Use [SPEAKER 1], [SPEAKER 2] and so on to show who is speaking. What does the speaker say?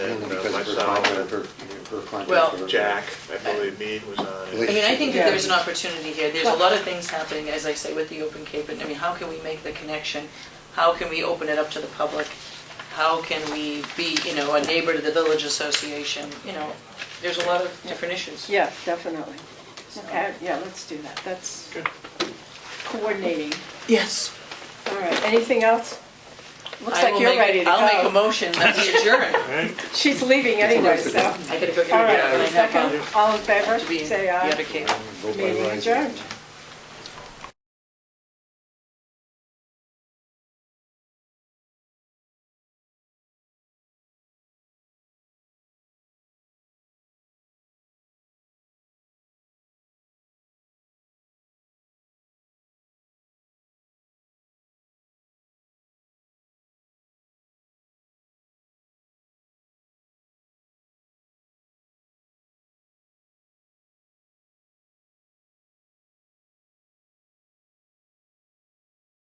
[SPEAKER 1] myself,
[SPEAKER 2] her, her contact.
[SPEAKER 3] Well,
[SPEAKER 2] her-
[SPEAKER 1] uh, Jack, I believe Mead was on
[SPEAKER 3] I
[SPEAKER 1] it.
[SPEAKER 3] mean, I think that
[SPEAKER 4] Yeah.
[SPEAKER 3] there's an opportunity here, there's a lot of things happening, as I say, with the Open Cape, and I mean, how can we make the connection? How can we open it up to the public? How can we be, you know, a neighbor to the village association, you know, there's a lot of different issues.
[SPEAKER 4] Yeah, definitely. Okay, uh, yeah, let's do that. That's
[SPEAKER 1] Good.
[SPEAKER 4] coordinating.
[SPEAKER 3] Yes.
[SPEAKER 4] All right, anything else? Looks like you're ready to go.
[SPEAKER 3] I'll make a motion that we adjourn.
[SPEAKER 1] Right?
[SPEAKER 4] She's leaving anyway, so.
[SPEAKER 3] I gotta go get
[SPEAKER 4] All
[SPEAKER 3] her.
[SPEAKER 4] right,
[SPEAKER 3] I have
[SPEAKER 4] second, all in favor,
[SPEAKER 3] to be-
[SPEAKER 4] say
[SPEAKER 3] you have
[SPEAKER 4] aye.
[SPEAKER 3] to keep-
[SPEAKER 2] Vote by
[SPEAKER 4] Meeting
[SPEAKER 2] right.
[SPEAKER 4] adjourned.